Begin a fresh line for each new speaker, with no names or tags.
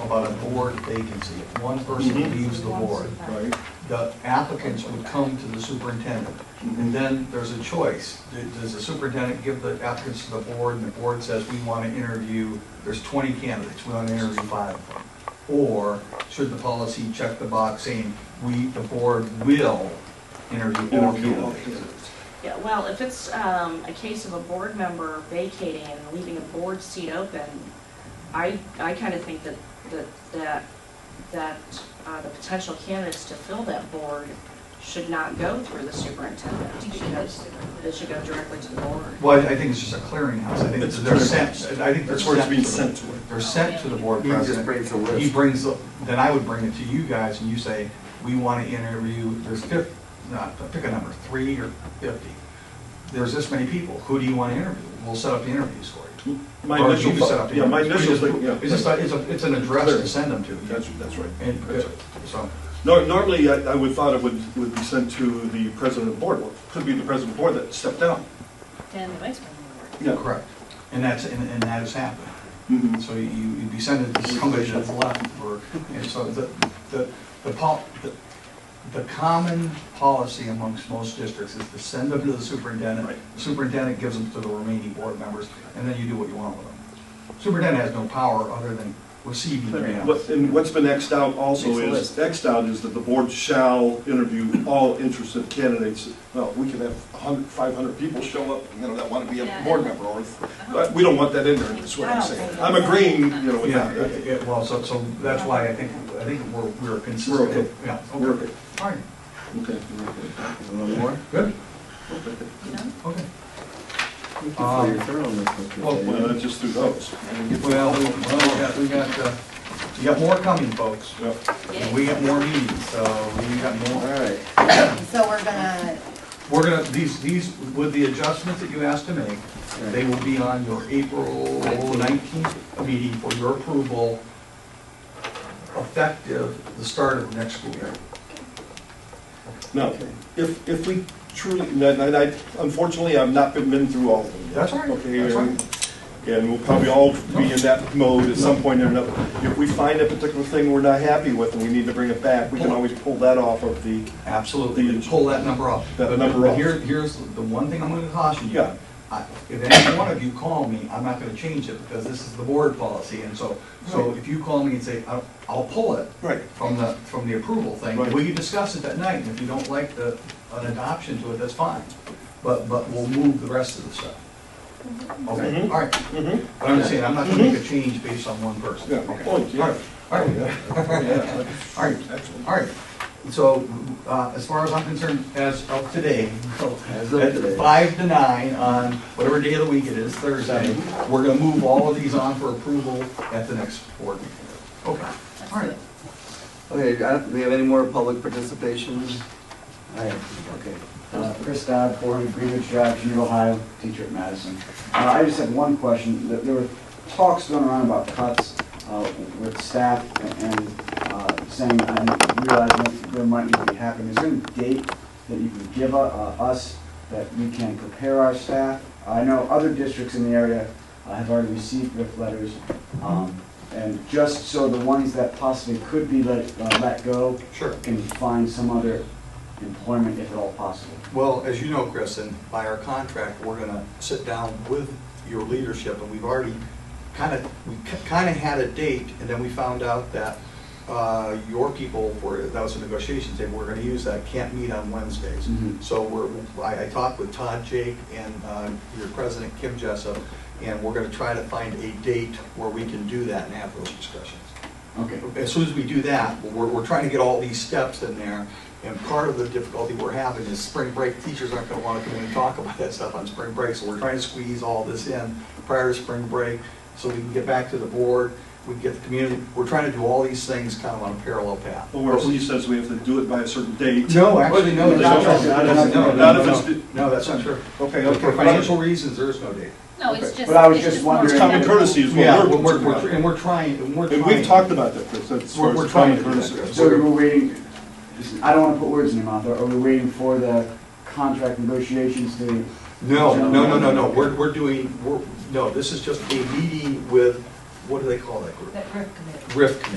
about a board vacancy. If one person
Mhm.
leaves the board,
Right,
the applicants would come to the superintendent. And then there's a choice. D- Does the superintendent give the applicants to the board, and the board says, we want to interview, there's 20 candidates, we want to interview five of them? Or should the policy check the box saying, we, the board will interview all
Interview all
candidates?
Yeah, well, if it's um, a case of a board member vacating and leaving a board seat open, I, I kind of think that, that, that, that uh, the potential candidates to fill that board should not go through the superintendent. It should go- It should go directly to the board.
Well, I think it's just a clearinghouse. I think
It's a
they're
clearinghouse.
sent, I think they're
that's where it's being
sent
sent
to
to.
the, they're sent to the board
He just
president.
brings the
He
list.
brings, the- then I would bring it to you guys and you say, we want to interview, there's fif, not, pick a number, three or fifty. There's this many people, who do you want to interview? We'll set up the interviews for you.
My
Or
initial
you set
thought-
up the
yeah, my
interviews.
initial
We just-
thing, yeah.
It's just, a- it's a, it's an address to send them to.
That's, that's right.
And,
That's right.
so,
uh, Nor- Normally, I I would thought it would, would be sent to the president of the board, Well, it could be the president of the board that stepped down.
And the vice president.
Yeah.
correct. And that's, and and that has happened.
Mhm.
Mm-hmm. So you, you'd be sending it to somebody that's left, or, and so the, the, the pol, the, the common policy amongst most districts is to send them to the superintendent.
Right.
The Superintendent gives them to the remaining board members, and then you do what you want with them. Superintendent has no power other than receiving
What-
grants.
And what's been Xed out also
Makes a
is,
list.
Xed out is that the board shall interview all interested candidates. Well, we could have 100, 500 people show up, you know, that want to be a
Yeah.
board member, or, but we don't want that in there, is what I'm saying. I'm agreeing, you know, with
Yeah,
that.
yeah, well, so, so that's why I think, I think we're, we're consistent.
We're okay.
Yeah,
We're okay.
All right,
Okay.
One more?
good,
You know?
okay.
You can fill your third on this one,
well,
Mr.
Well,
Daly.
just through those.
Well, we- well, we got, we got, uh, we got more coming, folks.
Yeah.
And we got more meetings, so we got
All
more.
right,
So we're gonna,
We're gonna, these, these, with the adjustments that you asked to make, they will be on your April nineteenth meeting for your approval, effective the start of next school year.
Now, if, if we truly, and I- and I, unfortunately, I've not been, been through all of them. yet.
That's all right,
Okay,
that's all
and- And we'll probably all be in that mode at some point or another. If we find a particular thing we're not happy with and we need to bring it back, we can always pull that off of the,
Absolutely, you can pull that number off.
That
But-
number
but
off.
Here, here's the one thing I'm gonna caution you.
Yeah.
I- If any one of you call me, I'm not gonna change it, because this is the board policy, and so, so
Right.
if you call me and say, I'll, I'll pull it.
Right.
From the, from the approval thing,
Right.
we can discuss it that night, and if you don't like the, an adoption to it, that's fine. But, but we'll move the rest of the stuff. Okay,
Mhm.
all right,
Mhm.
but I'm just saying, I'm not gonna make a change based on one person.
Yeah,
Mm-hmm. Okay.
oh, yeah.
All right, all right.
Yeah.
All right.
Excellent.
All right, so uh, as far as I'm concerned, as of today,
As of
at
today.
five to nine on whatever day of the week it is, Thursday, we're gonna move all of these on for approval at the next board meeting. Okay, all right.
okay, uh, do we have any more public participation?
Hi,
Okay,
uh, Chris Dodd, Board of Greenwich Drive, Geneva, Ohio, teacher at Madison. Uh, I just had one question. There there were talks going around about cuts uh, with staff and uh, saying, I realize that there might need to be happening. Is there any date that you can give u- uh, us that we can prepare our staff? I know other districts in the area uh, have already received RIF letters. um, And just so the ones that possibly could be let, uh, let go
Sure.
can find some other employment if at all possible.
Well, as you know, Chris, and by our contract, we're gonna sit down with your leadership, and we've already kind of, we kind of had a date, and then we found out that uh, your people, were that was a negotiation table, we're gonna use that, can't meet on Wednesdays.
Mhm.
So we're, I, I talked with Todd Jake and uh, your president, Kim Jessup, and we're gonna try to find a date where we can do that and have those discussions
Okay.
as soon as we do that, we're, we're trying to get all these steps in there. And part of the difficulty we're having is spring break, teachers aren't gonna wanna come in and talk about that stuff on spring break. So we're trying to squeeze all this in prior to spring break, so we can get back to the board, we can get the community. We're trying to do all these things kind of on a parallel path.
Or if he says we have to do it by a certain date.
No, actually, no, that's not true.
Not
No,
if-
no,
not if
no,
it's-
no. No, that's not true.
Okay,
For
okay.
financial reasons, there is no date.
No, it's just.
But I was just
more
wondering-
It's common courtesy is
Yeah,
what
we're,
we're
we're-
concerned
we're-
about.
and we're trying, and we're trying.
And we've talked about that, Chris, that's.
We're- we're trying to do that, Chris.
So we're waiting, I don't want to put words in your mouth, are we waiting for the contract negotiations to?
No, no, no, no, no, we're, we're doing, we're, no, this is just a meeting with, what do they call that group?
That RIF committee.
RIF committee.